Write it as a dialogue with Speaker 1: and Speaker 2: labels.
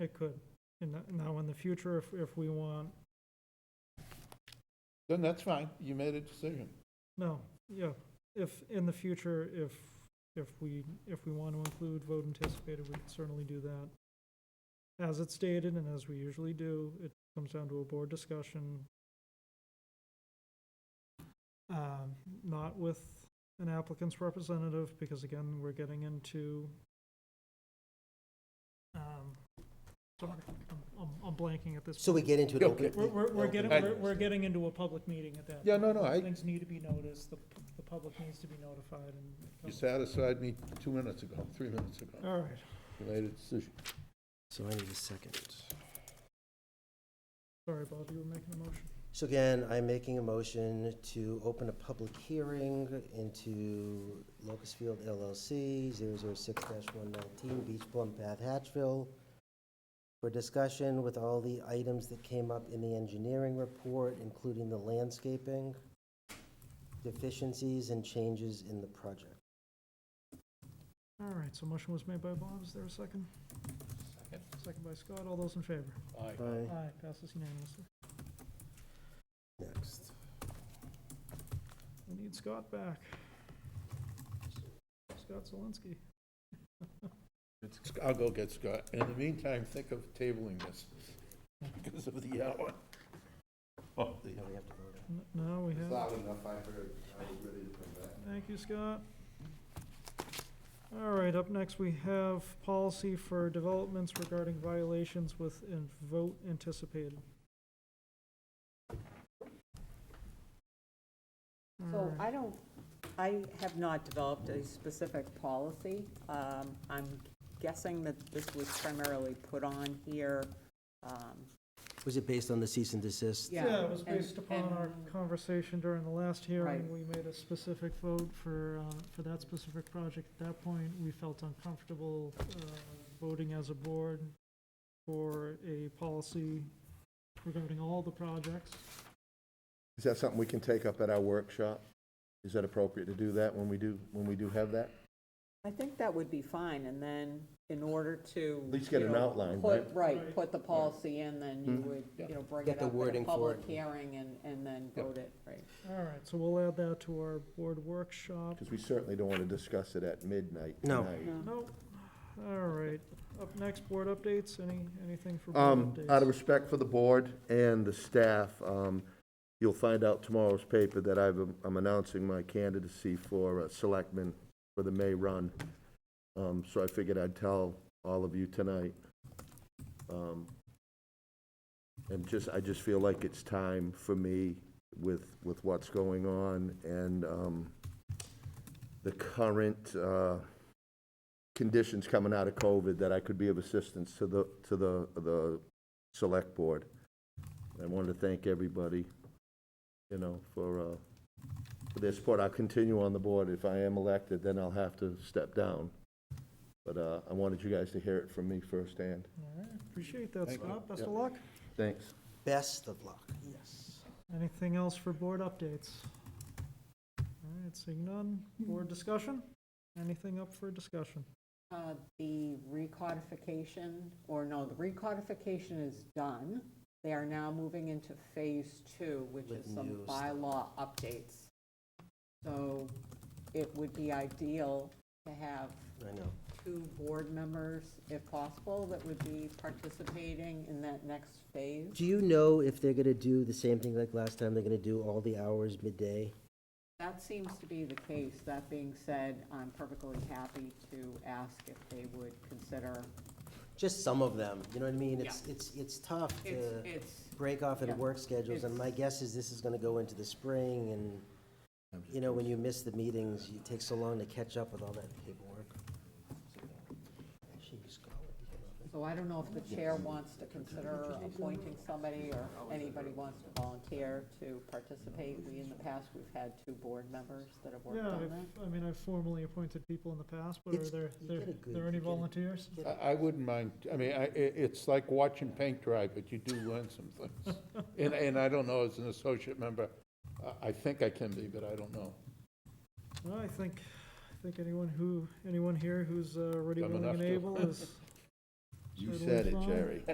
Speaker 1: It could. And that- now in the future, if, if we want,
Speaker 2: Then that's fine, you made a decision.
Speaker 1: no, yeah, if, in the future, if, if we, if we want to include vote anticipated, we can certainly do that. As it's stated and as we usually do, it comes down to a board discussion. Um, Not with an applicant's representative, because again, we're getting into um, sorry, I'm- I'm, I'm blanking at this.
Speaker 3: So we
Speaker 1: point.
Speaker 3: get into it.
Speaker 2: Yeah,
Speaker 3: open-
Speaker 2: okay.
Speaker 1: We're, we're, we're
Speaker 3: open
Speaker 1: getting,
Speaker 2: I-
Speaker 1: we're, we're getting into a public meeting at that.
Speaker 2: Yeah, no, no, I,
Speaker 1: Things need to be noticed, the, the public needs to be notified
Speaker 2: you
Speaker 1: and.
Speaker 2: satisfied me two minutes ago, three minutes ago.
Speaker 1: All right,
Speaker 2: You made a decision.
Speaker 3: So I need a second.
Speaker 1: sorry, Bob, you were making a motion.
Speaker 3: So again, I'm making a motion to open a public hearing into Locust Field LLC, 006-119 Beach Plum Path, Hatchville, for discussion with all the items that came up in the engineering report, including the landscaping, deficiencies, and changes in the project.
Speaker 1: All right, so motion was made by Bob, is there a second? Second by Scott, all those in favor?
Speaker 3: Aye.
Speaker 1: Aye, passes unanimously.
Speaker 3: Next.
Speaker 1: We need Scott back. Scott Zelinski.
Speaker 2: It's- I'll go get Scott. In the meantime, think of tabling this because of the hour. Oh, the
Speaker 3: Now
Speaker 2: hour.
Speaker 3: we have to vote on
Speaker 1: N- Now we have.
Speaker 4: Loud enough, I heard, I was ready to come back.
Speaker 1: Thank you, Scott. All right, up next, we have policy for developments regarding violations with in- vote anticipated. All
Speaker 5: So
Speaker 1: right.
Speaker 5: I don't, I have not developed a specific policy. Um, I'm guessing that this was primarily put on here. um,
Speaker 3: it. Was it based on the cease and desist?
Speaker 5: yeah,
Speaker 1: Yeah, it was
Speaker 5: and-
Speaker 1: based upon our
Speaker 5: and-
Speaker 1: conversation during the last hearing.
Speaker 5: Right.
Speaker 1: We made a specific vote for, uh, for that specific project. At that point, we felt uncomfortable uh, voting as a board for a policy regarding all the projects.
Speaker 4: Is that something we can take up at our workshop? Is that appropriate to do that when we do, when we do have that?
Speaker 5: I think that would be fine, and then in order to.
Speaker 4: At least get
Speaker 5: you
Speaker 4: an
Speaker 5: know,
Speaker 4: outline,
Speaker 5: put-
Speaker 4: right? Hmm.
Speaker 5: Right, put the policy in, then you would, you know, bring
Speaker 3: Get
Speaker 5: it
Speaker 3: the
Speaker 5: up at
Speaker 3: wording
Speaker 5: a
Speaker 3: for
Speaker 5: public
Speaker 3: it.
Speaker 5: hearing and, and then
Speaker 2: Yeah.
Speaker 5: vote it, right?
Speaker 1: All right, so we'll add that to our board workshop.
Speaker 4: Because we certainly don't want to discuss it at midnight
Speaker 3: No.
Speaker 4: tonight.
Speaker 1: Nope. All right, up next, board updates, any, anything for
Speaker 4: Um,
Speaker 1: board
Speaker 4: out of
Speaker 1: updates?
Speaker 4: respect for the board and the staff, um, you'll find out tomorrow's paper that I've, um, I'm announcing my candidacy for uh, selectman for the May run. Um, so I figured I'd tell all of you tonight. Um, and just, I just feel like it's time for me with, with what's going on and, um, the current, uh, conditions coming out of COVID that I could be of assistance to the, to the, the select board. I wanted to thank everybody, you know, for, uh, for their support. I'll continue on the board. If I am elected, then I'll have to step down. But, uh, I wanted you guys to hear it from me firsthand.
Speaker 1: All right, Appreciate that,
Speaker 2: Thank you.
Speaker 1: Scott, best
Speaker 4: Yep.
Speaker 1: of luck.
Speaker 4: Thanks.
Speaker 3: Best of luck, yes.
Speaker 1: Anything else for board updates? All right, seeing none, board discussion, anything up for discussion?
Speaker 5: Uh, The recodification, or no, the recodification is done. They are now moving into phase two, which
Speaker 3: With
Speaker 5: is some
Speaker 3: new stuff.
Speaker 5: bylaw updates. So it would be ideal to have
Speaker 3: I know.
Speaker 5: two board members, if possible, that would be participating in that next phase.
Speaker 3: Do you know if they're gonna do the same thing like last time, they're gonna do all the hours midday?
Speaker 5: That seems to be the case. That being said, I'm perfectly happy to ask if they would consider,
Speaker 3: Just some of them, you know what I mean? It's, it's, it's tough
Speaker 5: it's,
Speaker 3: to
Speaker 5: it's
Speaker 3: break off
Speaker 5: yeah,
Speaker 3: and work schedules, and
Speaker 5: it's-
Speaker 3: my guess is this is gonna go into the spring, and, you know, when you miss the meetings, it takes so long to catch up with all that paperwork. She was gone.
Speaker 5: So I don't know if the chair wants to consider appointing somebody or anybody wants to volunteer to participate. We, in the past, we've had two board members that have worked
Speaker 1: Yeah,
Speaker 5: on
Speaker 1: I've-
Speaker 5: that.
Speaker 1: I mean, I've formally appointed people in the past, but are
Speaker 3: It's-
Speaker 1: there,
Speaker 3: you
Speaker 1: there
Speaker 3: get a good-
Speaker 1: there any
Speaker 3: you get a-
Speaker 1: volunteers?
Speaker 2: I, I wouldn't mind, I mean, I, i- it's like watching paint dry, but you do learn some things. And, and I don't know, as an associate member, I, I think I can be, but I don't know.
Speaker 1: Well, I think, I think anyone who, anyone here who's uh, already
Speaker 2: Dumb
Speaker 1: willing and
Speaker 2: enough to.
Speaker 1: able is,
Speaker 4: You
Speaker 1: Totally
Speaker 4: said it,
Speaker 1: fine.
Speaker 4: Jerry.